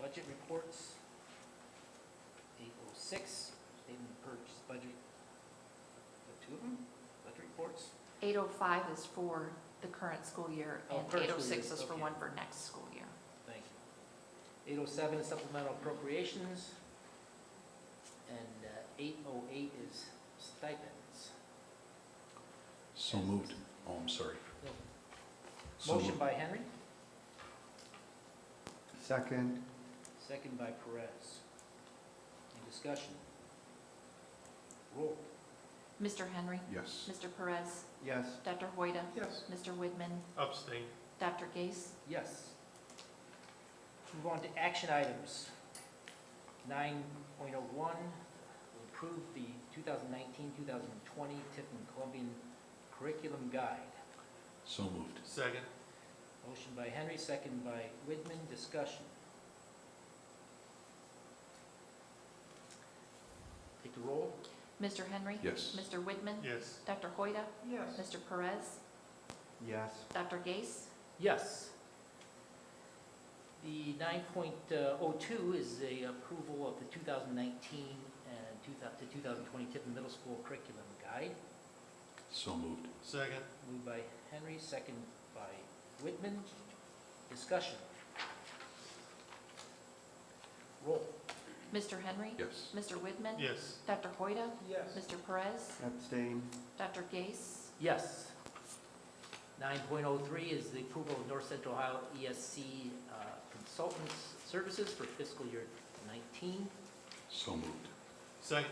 budget reports. Eight oh six, statement of purchase budget. The two of them, budget reports. 805 is for the current school year, Oh, and current school 806 year, is for okay. one for next school year. Thank you. 807 is supplemental appropriations, and uh, 808 is stipends. So moved. Oh, I'm sorry. So Motion moved. by Henry, Second, second by Perez. Any discussion? Roll. Mr. Henry, Yes. Mr. Perez, yes. Dr. Hoida, Yes. Mr. Widman, Abstain. Dr. Gase, Yes. Move on to action items. 9.01, approve the 2019-2020 Tiffin Columbian Curriculum Guide. So moved. Second. Motion by Henry, second by Widman, discussion. Take the roll. Mr. Henry, Yes. Mr. Widman, Yes. Dr. Hoida, Yes. Mr. Perez, Yes, Dr. Gase, Yes. The 9.02 is the approval of the 2019 and 2000 to 2020 Tiffin Middle School Curriculum Guide, So moved. Second. moved by Henry, second by Widman. Discussion. Roll. Mr. Henry, Yes. Mr. Widman, Yes. Dr. Hoida, Yes. Mr. Perez, abstain, Dr. Gase, Yes. 9.03 is the approval of North Central Ohio ESC uh, Consultants Services for fiscal year 19. So moved. Second.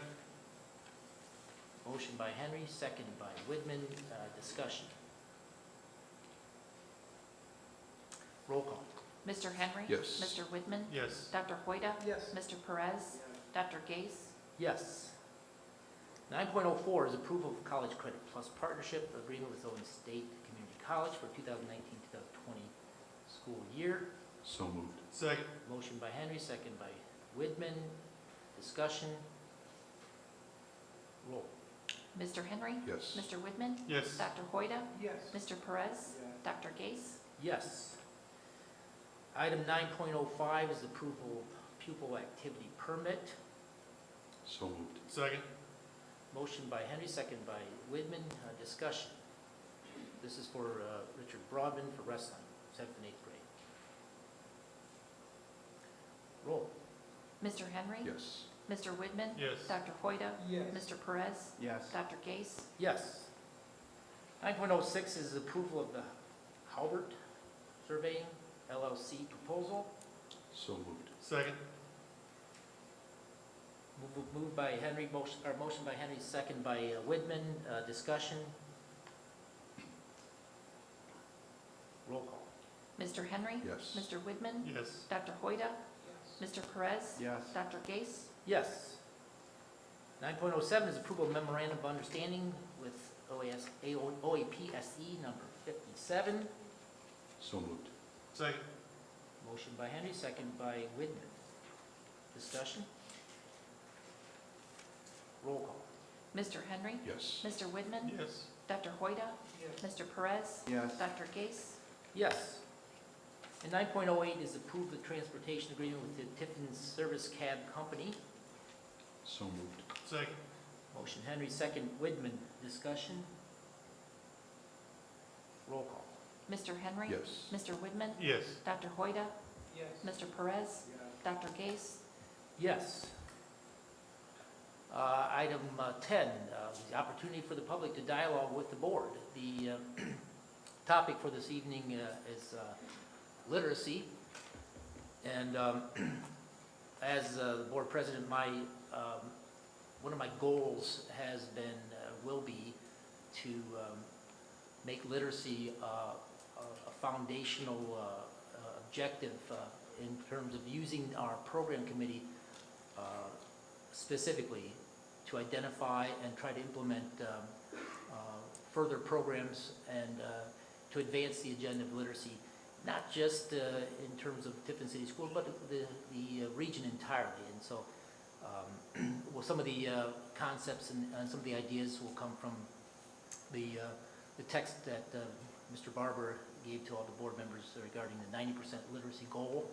Motion by Henry, second by Widman. Uh, Discussion. Roll call. Mr. Henry, Yes. Mr. Widman, Yes. Dr. Hoida, Yes. Mr. Perez, Dr. Gase, Yes. 9.04 is approval of college credit plus partnership agreement with Owen State Community College for 2019-2020 school year. So moved. Second. Motion by Henry, second by Widman. Discussion. Roll. Mr. Henry, Yes. Mr. Widman, Yes. Dr. Hoida, Yes. Mr. Perez, Dr. Gase, Yes. Item 9.05 is approval of pupil activity permit. So moved. Second. Motion by Henry, second by Widman. Uh, Discussion. This is for uh, Richard Broadman for wrestling, seventh and eighth grade. Roll. Mr. Henry, Yes. Mr. Widman, Yes. Dr. Hoida, Yes. Mr. Perez, yes, Dr. Gase, Yes. 9.06 is approval of the Halbert Surveying LLC proposal, So moved. Second. Move- moved by Henry, motion, or motion by Henry, second by uh, Widman, Uh, discussion. Roll call. Mr. Henry, Yes. Mr. Widman, Yes. Dr. Hoida, Mr. Perez, yes, Dr. Gase, Yes. 9.07 is approval of memorandum of understanding with OAS, AO OAPSE E number 57. So moved. Second. Motion by Henry, second by Widman. Discussion? Roll call. Mr. Henry, Yes. Mr. Widman, Yes. Dr. Hoida, Mr. Perez, yes, Dr. Gase, Yes. And 9.08 is approve the transportation agreement with the Tiffin Service Cab Company. So moved. Second. Motion Henry, second Widman. Discussion? Roll call. Mr. Henry, Yes. Mr. Widman, Yes. Dr. Hoida, Yes. Mr. Perez, Dr. Gase, Yes. Uh, Item uh, 10, uh, the opportunity for the public to dialogue with the board. The uh, topic for this evening uh, is uh, literacy. And um, as uh, the board president, my, um, one of my goals has been, uh, will be, to um, make literacy uh, a a foundational uh, uh, objective uh, in terms of using our program committee uh, specifically to identify and try to implement um, uh, further programs and uh, to advance the agenda of literacy, not just uh, in terms of Tiffin City Schools, but the, the uh, region entirely. And so, um, well, some of the uh, concepts and, and some of the ideas will come from the, uh, the text that uh, Mr. Barber gave to all the board members regarding the 90% literacy goal